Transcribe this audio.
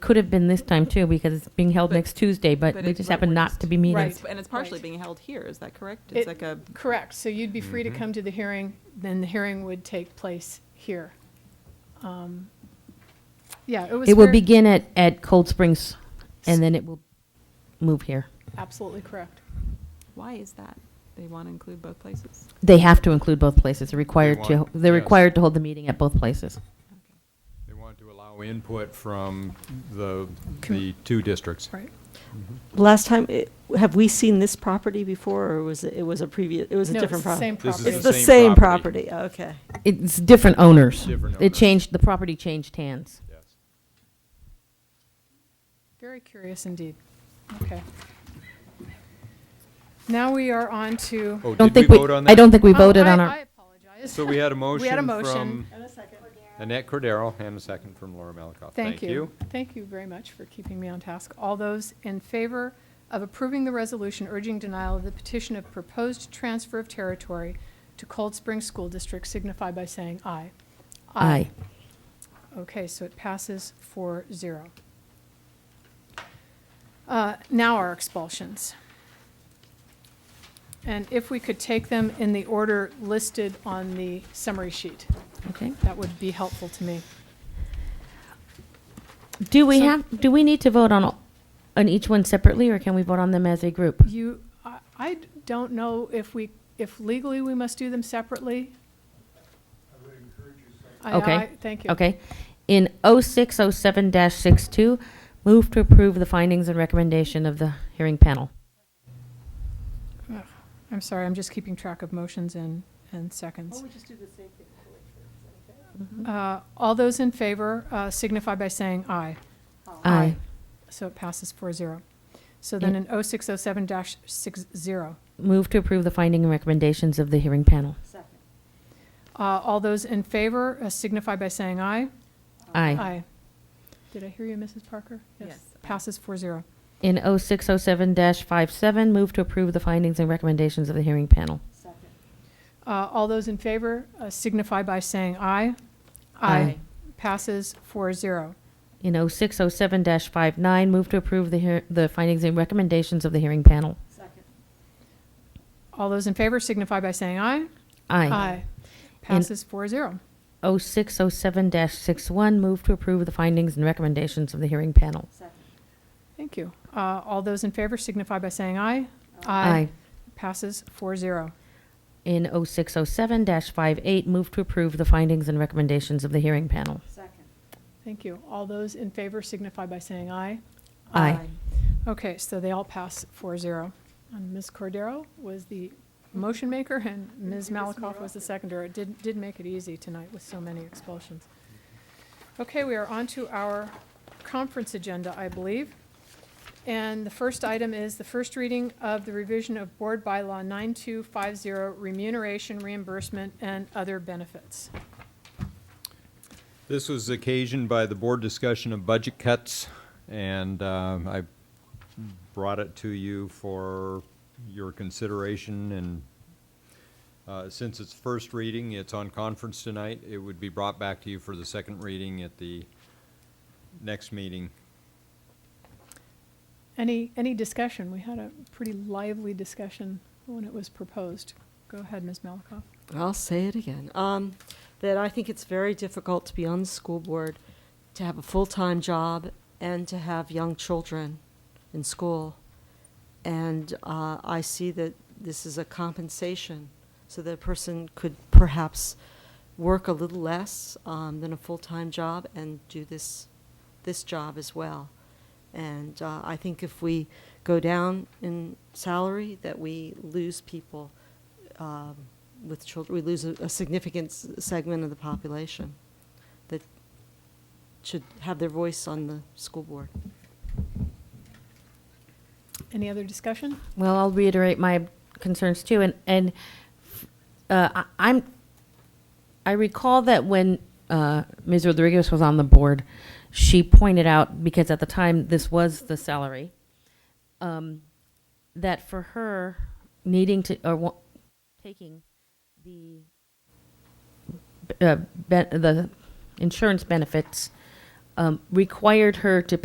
Could have been this time too, because it's being held But- next Tuesday, but but we it- just but happened we're not just- to be meeting. Right, and it's partially Right. being held here, is that correct? It- It's like a, Correct, so you'd be free to Mm-hmm. come to the hearing, then the hearing would take place here. Um, Yeah, it was. It will very- begin at, at Cold Springs, and then it will move here. Absolutely correct. why is that? They want to include both places? They have to include both places. They're required to, want- they're yes. required to hold the meeting at both places. They want to allow input from the, Com- the two districts. Right. Last time, it- have we seen this property before, or was it, it was a previous, it was a No, it's different the property? same This is property. It's the same property, okay. It's different owners. Different It owners. changed, the property changed hands. Yes. Very curious indeed. Okay. Now we are on to. Oh, Don't did we think we, vote on that? I don't think we Oh, voted I- on I our, apologize. So we had a We had a motion. motion from Annette Cordero and a second from Laura Malikoff. Thank you. Thank you very much for keeping me on task. All those in favor of approving the resolution urging denial of the petition of proposed transfer of territory to Cold Spring School District signify by saying aye. aye. Okay, so it passes 4-0. Uh, Now our expulsions. And if we could take them in the order listed on the summary sheet, Okay. that would be helpful to me. Do we So- have, do we need to vote on, all- on each one separately, or can we vote on them as a group? You, I- I d- don't know if we, if legally we must do them separately. I would encourage you. Okay. Thank you. Okay. In 0607-62, move to approve the findings and recommendation of the hearing panel. I'm sorry, I'm just keeping track of motions and, and Oh, seconds. Uh, All those in favor uh, signify by saying aye. Aye. So it passes 4-0. So then in 0607 60, Move to approve the finding and recommendations of the hearing panel. Uh, all those in favor uh, signify by saying aye. Aye. Did I hear you, Mrs. Parker? Yes, aye. Passes 4-0. In 0607-57, move to approve the findings and recommendations of the hearing panel. Uh, All those in favor uh, signify by saying aye. Aye. Passes 4-0. In 0607-59, move to approve the, hear- the findings and recommendations of the hearing panel. All those in favor signify by saying aye. Aye. Passes 4-0. 0607-61, move to approve the findings and recommendations of the hearing panel. Thank you. Uh, All those in favor signify by saying aye. Passes 4-0. In 0607-58, move to approve the findings and recommendations of the hearing panel. Uh, Thank you. All those in favor signify by saying aye. Aye. Okay, so they all pass 4-0. And Ms. Cordero was the motion maker and Ms. Malakoff was the seconder. It did, did make it easy tonight with so many expulsions. Okay, we are on to our conference agenda, I believe. And the first item is the first reading of the revision of Board Bylaw 9250, remuneration, reimbursement, and other benefits. This was occasioned by the board discussion of budget cuts, and um, I brought it to you for your consideration, and uh, since it's first reading, it's on conference tonight, it would be brought back to you for the second reading at the next meeting. Any, any discussion? We had a pretty lively discussion when it was proposed. Go ahead, Ms. Malakoff. I'll say it again, um, that I think it's very difficult to be on the school board, to have a full-time job, and to have young children in school. And, uh, I see that this is a compensation, so that a person could perhaps work a little less, um, than a full-time job and do this, this job as well. And, uh, I think if we go down in salary, that we lose people um, with children, we lose a, a significant s- segment of the population that should have their voice on the school board. Any other discussion? Well, I'll reiterate my concerns too, and, and uh, I- I'm, I recall that when uh, Ms. Rodriguez was on the board, she pointed out, because at the time this was the salary, um, that for her needing to, or wa- taking the, uh, ben- the insurance benefits um, required her to pay.